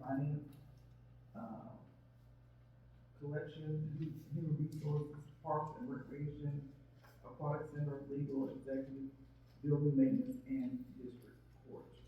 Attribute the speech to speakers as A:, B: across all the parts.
A: finance, uh, collection, hu- human resources, parks and recreation, aquatic center, legal, executive, building maintenance, and district court.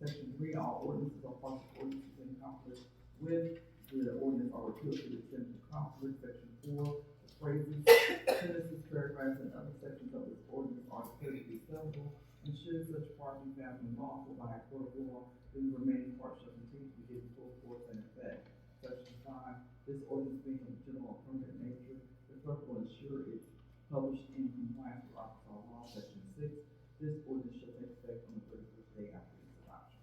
A: Section three, all ordinances or parts of ordinances in conflict with the ordinance are repealed to the extent of conflict. Section four, the phrases, sentences, paragraphs, and other sections of this ordinance are declared to be sellable, and should such part be found unlawful by a court of law, then the remaining part shall continue to be given full force and effect. Section five, this ordinance being of general and permanent nature, the clerk will ensure it's published in compliance with Arkansas law. Section six, this ordinance shall take effect on the thirty-first day after its adoption.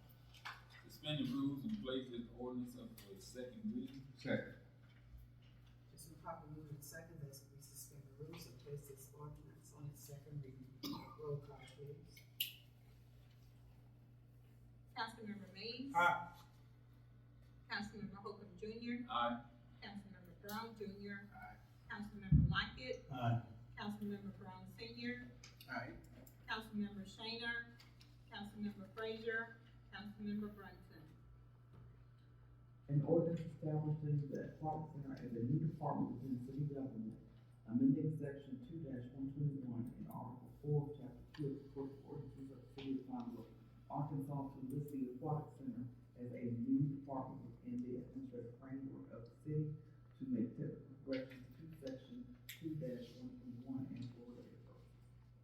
B: Suspend the rules and place this ordinance up for its second reading.
C: Second.
D: It's been properly moved and second that we suspend the rules and place this ordinance on its second reading. Roll call please.
E: Councilmember Mays.
C: Aye.
E: Councilmember Holcomb Junior,
B: Aye.
E: Councilmember Brown Junior. Councilmember Lockett.
C: Aye.
E: Councilmember Brown Senior,
C: Aye.
E: Councilmember Shainer, Councilmember Frazier, Councilmember Brunson.
A: An ordinance establishing the aquatic center as a new department within city government, amending section two one twenty-one and article four, of chapter two of the code of ordinances of the city of Conway, Arkansas to list the aquatic center as a new department within the administrative framework of the city to make technical corrections to section two one twenty-one and four thereof.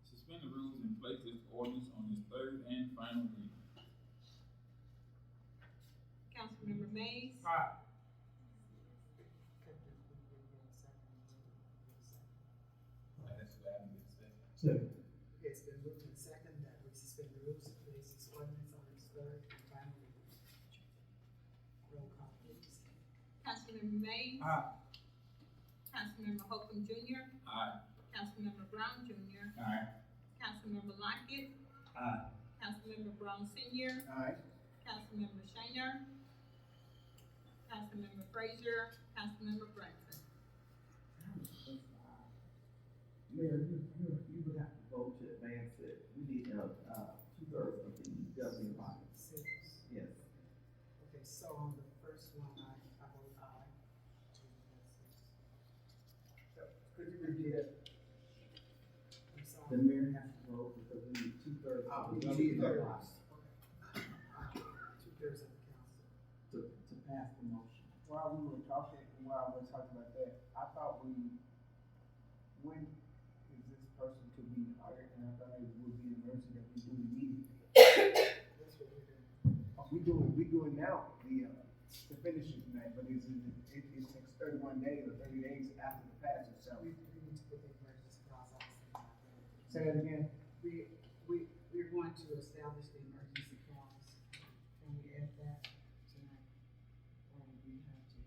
B: Suspend the rules and place this ordinance on its third and final reading.
E: Councilmember Mays.
C: Aye.
D: Could we give you a second?
B: And that's what happened in second.
C: Second.
D: It's been moved and second that we suspend the rules and place this ordinance on its third and final reading. Roll call please.
E: Councilmember Mays.
C: Aye.
E: Councilmember Holcomb Junior,
B: Aye.
E: Councilmember Brown Junior,
C: Aye.
E: Councilmember Lockett.
C: Aye.
E: Councilmember Brown Senior,
C: Aye.
E: Councilmember Shainer, Councilmember Frazier, Councilmember Brunson.
A: Mayor, you, you, you would have to vote to advance it, we need, uh, uh, two-thirds of the governing body,
D: Six.
A: yes.
D: Okay, so on the first one, I, I vote aye.
A: Could you repeat it?
D: I'm
A: The
D: sorry.
A: mayor has to vote because we need two-thirds
D: Oh,
A: of
D: we
A: the
D: need
A: governing
D: two-thirds.
A: body
D: Two thirds of the council.
A: to, to pass the motion.
F: while we were talking, while we were talking about that, I thought we, when is this person to be hired? And I thought it would be a mercy that we do it immediately.
D: That's what we're doing.
F: Uh, We do it, we do it now, the, uh, the finishing tonight, but it's, it, it takes thirty-one days or thirty days after the passage, so.
D: We, we need to put the emergency clause out.
F: Say that again?
D: We, we, we're going to establish the emergency clause. Can we add that tonight? Or do we have to?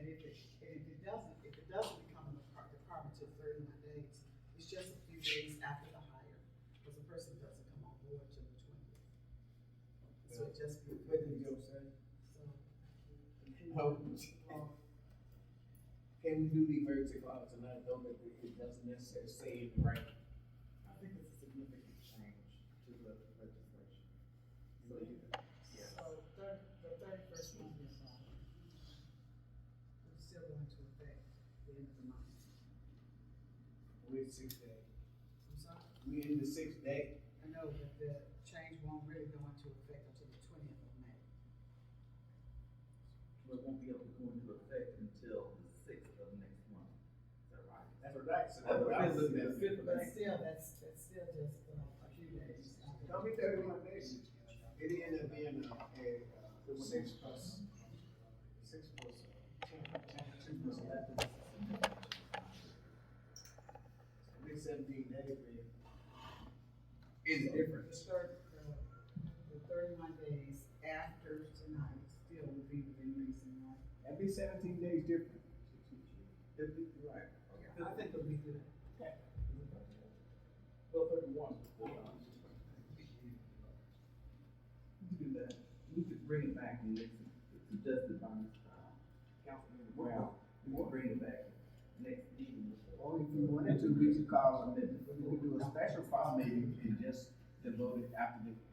D: And if it, and if it doesn't, if it doesn't become a depart- department till thirty-one days, it's just a few days after the hire, because the person doesn't come on board till the twentieth. So it just be.
F: What did you say?
D: So.
G: No. Can we do the emergency clause tonight, though, that it it doesn't necessarily say it right?
A: I think it's a significant change to the legislation. So you,
G: Yeah.
D: So third, the thirty-first will be fine. It's still going to affect the end of the month.
G: We're six day,
D: I'm sorry,
G: we in the sixth day,
D: I know that the change won't really go into effect until the twentieth of May.
A: but won't be able to go into effect until the sixth of next month. Is that right?
G: that's right, so that's what I was looking
A: The
G: at.
A: fifth of
D: But
A: next-
D: still, that's, that's still just uh, a few days.
F: Don't be thirty-one days.
G: It ended up being a, a, uh, six plus, six plus, uh, ten, ten, two plus eleven. At least seventeen days, man. Is different.
D: The third, uh, the thirty-one days after tonight still would be within reason, right?
F: That'd be seventeen days different.
A: If we- Right.
D: I think it'll be good.
G: Well, thirty-one.
A: We could do that. We could bring it back and it's it's suggested by Ms. uh, Councilmember Brown. We could bring it back next meeting.
D: Oh,
F: Or if you wanted to, we could call, a- we could do a special file meeting and just devote it after the